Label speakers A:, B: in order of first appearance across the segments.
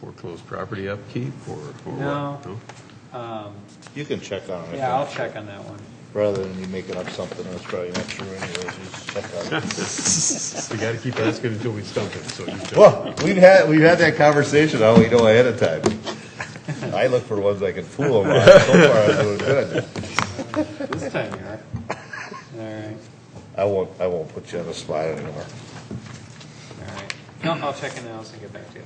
A: proposed property upkeep or, or
B: No.
A: what?
B: Um,
C: You can check on it. I
B: Yeah, I'll
C: think.
B: check on that one.
C: Rather than you making up something that's probably not true anyways, you just check on it.
A: We gotta keep asking until we stump it, so you don't.
C: Well, we've had, we've had that conversation, how we know ahead of time. I look for ones I can fool them on, so far I'm doing good.
B: This time you are. All right,
C: I won't, I won't put you on the spot anymore.
B: all right. No, I'll check on those and get back to you.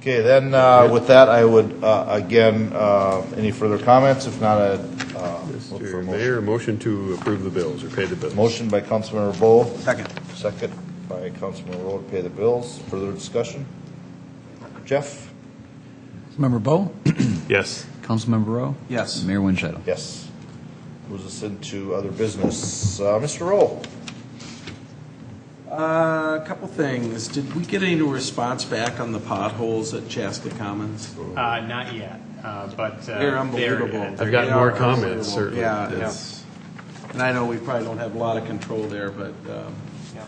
C: Okay, then, uh, with that, I would, uh, again, uh, any further comments? If not, I'd, uh, look for a
A: Mr.
C: motion.
A: Mayor, motion to approve the bills or pay the bills.
C: Motion by Councilmember Bowe.
D: Second.
C: Second by Councilmember Rowe to pay the bills. Further discussion? Jeff?
E: Member Bo,
A: Yes.
E: Councilmember Rowe,
D: Yes.
E: Mayor Winchell.
C: Yes. Moves us into other business. Uh, Mr. Roll.
D: Uh, A couple things. Did we get any response back on the potholes at Chaska Commons?
F: Uh, not yet, uh, but. uh,
D: They're unbelievable.
F: they're-
A: I've got
D: They
A: more
D: are
A: comments,
D: unbelievable.
A: certainly.
D: Yeah,
A: Yes.
D: it's- and I know we probably don't have a lot of control there, but um,
B: Yeah.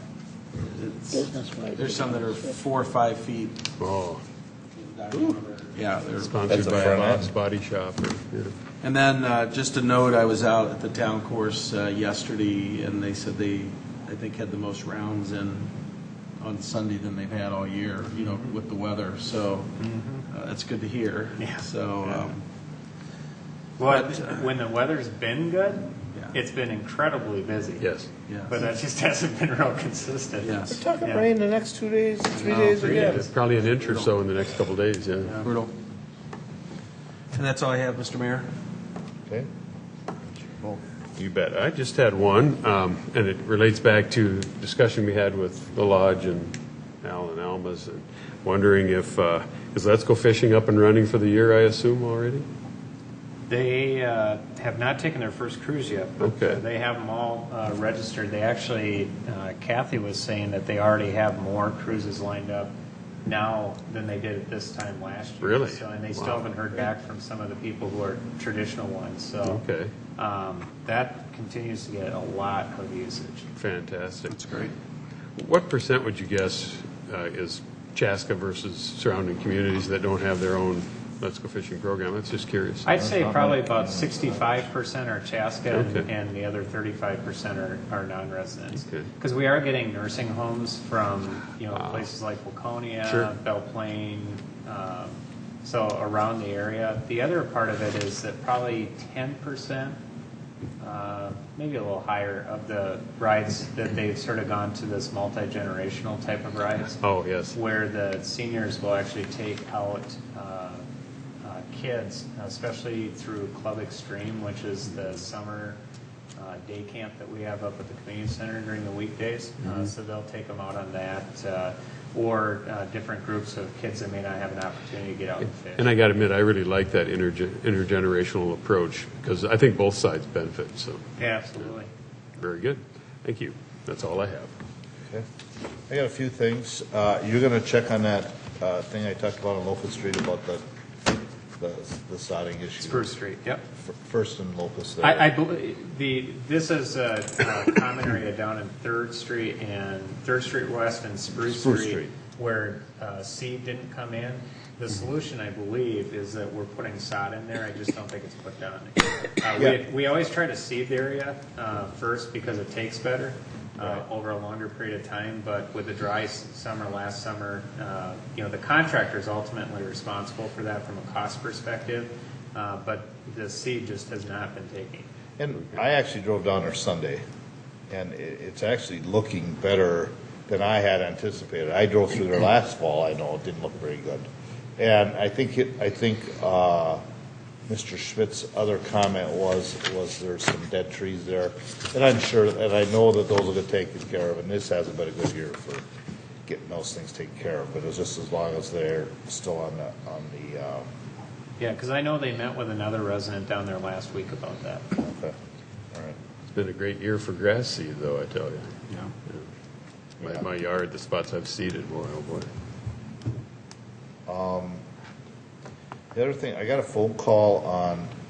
D: it's, there's some that are four or five feet.
A: Oh,
D: Yeah, they're
A: sponsored
C: That's a
A: by
C: front
A: Bob's
C: end.
A: Body Shop or, yeah.
D: And then, uh, just a note, I was out at the town course uh, yesterday, and they said they, I think, had the most rounds in, on Sunday than they've had all year, you know, with the weather, so uh, that's good to hear.
F: Yeah.
D: So, um,
F: Well,
D: But, uh,
F: when the weather's been good,
D: Yeah.
F: it's been incredibly busy.
A: yes.
F: But uh,
D: yeah,
F: that just hasn't been real consistent.
D: yes,
C: Talking
F: Yeah.
C: the next two days, three
D: No,
F: three
A: It's Probably an inch or so in the next couple days, yeah.
D: brutal. And that's all I have, Mr. Mayor.
C: Okay.
A: You bet. I just had one, um, and it relates back to discussion we had with the lodge and Al and Alma's, and wondering if, uh, is Let's Go Fishing up and running for the year, I assume, already?
F: They uh, have not taken their first cruise yet, but uh,
A: Okay.
F: they have them all uh, registered. They actually, uh, Kathy was saying that they already have more cruises lined up now than they did at this time last year.
A: Really?
F: So, and they still
A: Wow.
F: haven't heard back from some of the people who are traditional ones, so.
A: Okay.
F: um, That continues to get a lot of usage.
A: Fantastic.
D: That's great.
A: What percent would you guess uh, is Chaska versus surrounding communities that don't have their own Let's Go Fishing program? That's just curious.
F: I'd say probably about sixty-five percent are Chaska, and-
A: Okay.
F: and the other thirty-five percent are, are non-residents.
A: Okay.
F: Because we are getting nursing homes from, you know, places like
A: Sure.
F: Waconia, Belle Plaine, um, so around the area. The other part of it is that probably ten percent, uh, maybe a little higher, of the rides that they've sort of gone to this multi-generational type of rides
A: Oh, yes.
F: where the seniors will actually take out uh, uh, kids, especially through Club Extreme, which is the summer uh, day camp that we have up at the community center during the weekdays.
A: Mm-hmm.
F: Uh, So they'll take them out on that, uh, or uh, different groups of kids that may not have an opportunity to get out and
A: And
F: fish.
A: I got to admit, I really like that interge- intergenerational approach because I think both sides benefit, so
F: Yeah, absolutely.
A: very good. Thank you. That's all I have.
C: Okay. I got a few things. Uh, You're going to check on that uh, thing I talked about on Locust Street about the, the the sodding issue.
F: Spruce Street, yep.
C: F- First and Locust there.
F: I, I believe, the, this is a uh, common area down in Third Street and, Third Street West and Spruce
C: Spruce
F: Street,
C: Street.
F: where uh, seed didn't come in. The solution, I believe, is that we're putting sod in there, I just don't think it's put down. Uh, We,
C: Yeah.
F: we always try to seed the area uh, first because it takes better uh, over a longer period of time, but with the dry s- summer last summer, uh, you know, the contractor is ultimately responsible for that from a cost perspective, uh, but the seed just has not been taken.
C: And I actually drove down there Sunday, and i it's actually looking better than I had anticipated. I drove through there last fall. I know it didn't look very good, and I think it, I think uh, Mr. Schmidt's other comment was was there's some dead trees there, and I'm sure, and I know that those will get taken care of. And this hasn't been a good year for getting those things taken care of, but it's just as long as they're still on the on the. Uh,
F: Yeah, because I know they met with another resident down there last week about that.
C: okay. all right.
A: It's been a great year for grass seed, though, I tell you.
D: Yeah.
A: My, my yard, the spots I've seeded, boy, oh boy.
C: The other thing, I got a phone call on